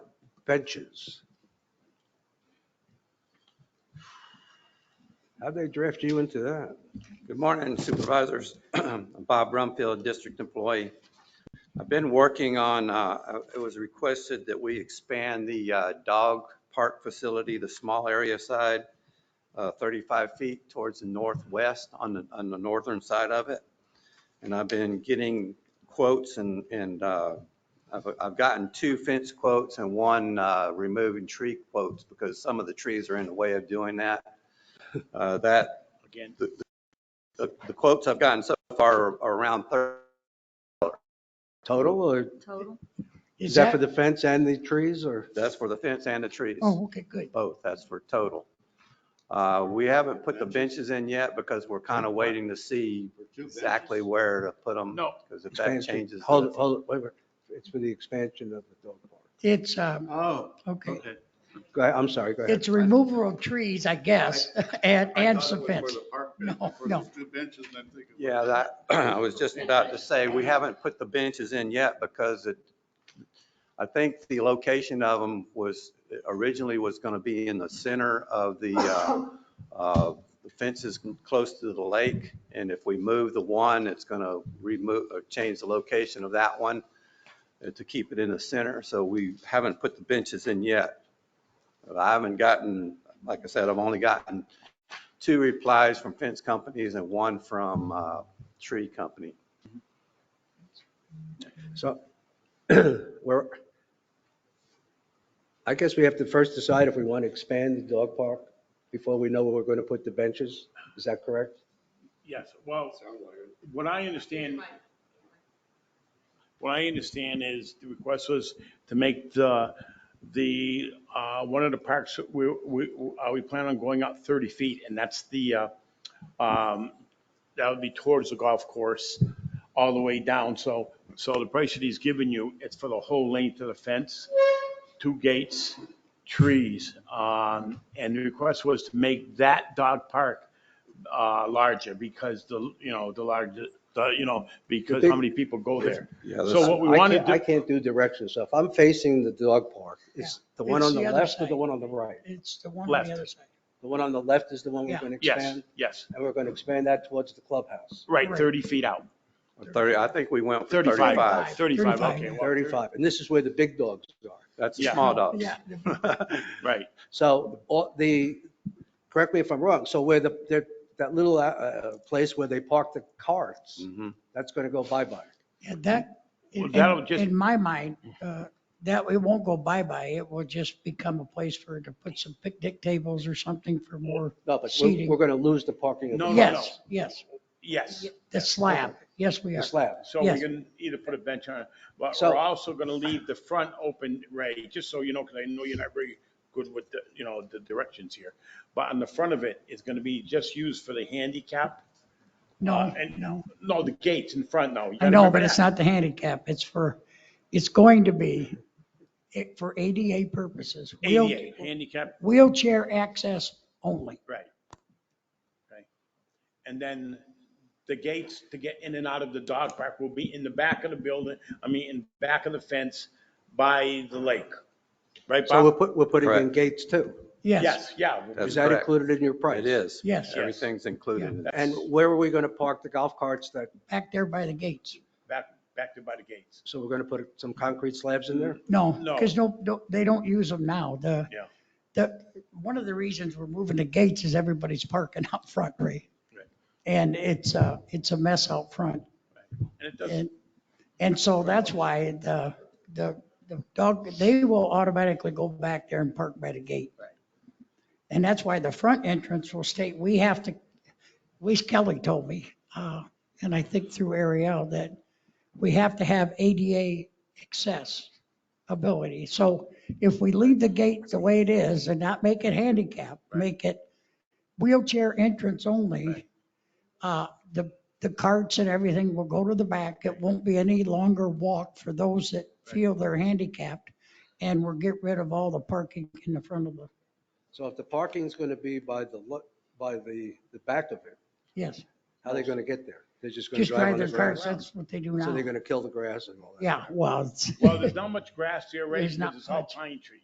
benches. How'd they draft you into that? Good morning Supervisors. I'm Bob Rumfield, District Employee. I've been working on, uh, it was requested that we expand the uh, dog park facility, the small area side, uh, 35 feet towards the northwest on the, on the northern side of it. And I've been getting quotes and, and uh, I've, I've gotten two fence quotes and one uh, removing tree quotes because some of the trees are in the way of doing that. Uh, That Again, the the quotes I've gotten so far are around 30. Total or Total? is that for the fence and the trees or? That's for the fence and the trees, Oh, okay, good. both. That's for total. Uh, We haven't put the benches in yet because we're kind of waiting to see exactly where to put them. No. Because if that expansion- changes. Hold, it, the- hold, it, wait, a minute. It's for the expansion of the dog park. It's, um, oh, okay, okay. Go ahead, I'm sorry, go ahead. it's removal of trees, I guess, and, and some fence. No, no. Yeah, that, I was just about to say, we haven't put the benches in yet because it, I think the location of them was, originally was going to be in the center of the uh, uh, the fences close to the lake. And if we move the one, it's going to remove, or change the location of that one uh, to keep it in the center. So we haven't put the benches in yet. But I haven't gotten, like I said, I've only gotten two replies from fence companies and one from uh, tree company. So we're, I guess we have to first decide if we want to expand the dog park before we know where we're going to put the benches. Is that correct? Yes, well, what I understand, what I understand is the request was to make the, the, uh, one of the parks, we, we, uh, we plan on going out 30 feet and that's the, uh, um, that would be towards the golf course all the way down. So, so the price that he's giving you, it's for the whole length of the fence, two gates, trees. Um, and the request was to make that dog park uh, larger because the, you know, the larger, the, you know, because how many people go there. So what we I want to can't- I do, can't do direction stuff. I'm facing the dog park. It's the one It's on the the other left or the side. one on the right? It's the one on Left. the other side. The one on the left is the one we're Yeah. going to yes, expand, yes, and we're going to expand that towards the clubhouse. right, Right. 30 feet out, 30, I think we went for 35, 35. 35, okay. well, 35, and this is where the big dogs are. That's the Yeah. small dogs. Yeah, Right, So all the, correct me if I'm wrong, so where the, there- that little uh, uh, place where they park the carts, Mm. Mhm. that's going to go bye-bye. and that, Well, in, that'll just- in my mind, uh, that, it won't go bye-bye. It will just become a place for, to put some picnic tables or something for more, No, but we're, Seating. we're going to lose the parking of No, the- no, yes, yes, yes. the slab, yes, we the are. slab. So we Yes. can either put a bench on, it, but So- we're also going to leave the front open, Ray, just so you know, because I know you're not very good with the, you know, the directions here. But on the front of it, it's going to be just used for the handicap. No, and- no. No, the gates in front, no. you I gotta know, remember but it's that. not the handicap. It's for, it's going to be it- for ADA purposes. Wheel- ADA, handicap, Wheelchair access only. right. Right. And then the gates to get in and out of the dog park will be in the back of the building, I mean, in back of the fence by the lake. Right, So we're Bob? put, we're putting in Correct. gates too. Yes, Yes, yeah. Is That's that correct. included in your price? It is. yes, Everything's included in that. And where are we going to park the golf carts that, back there by the gates. Back, back to by the gates. so we're going to put some concrete slabs in there? No, No. because no, no- they don't use them now. The, Yeah. the, one of the reasons we're moving the gates is everybody's parking out front, Ray. Right. And it's a, it's a mess out front. And it doesn't, And, and so that's why the, the, the dog, they will automatically go back there and park by the gate. And that's why the front entrance will state, we have to, Lee Kelly told me, uh, and I think through Ariel, that we have to have ADA access ability. So if we leave the gate the way it is and not make it handicap, make it wheelchair entrance only, uh, the the carts and everything will go to the back. It won't be any longer walk for those that feel they're handicapped. And we'll get rid of all the parking in the front of the, So if the parking's going to be by the, lo- by the, the back of it, yes, how are they going to get there? They're just going to just drive drive on the their cars. grass? That's what they do So now. they're going to kill the grass and all that? Yeah, well, it's- well, there's not much grass here, right? There's not Because it's all much. pine trees.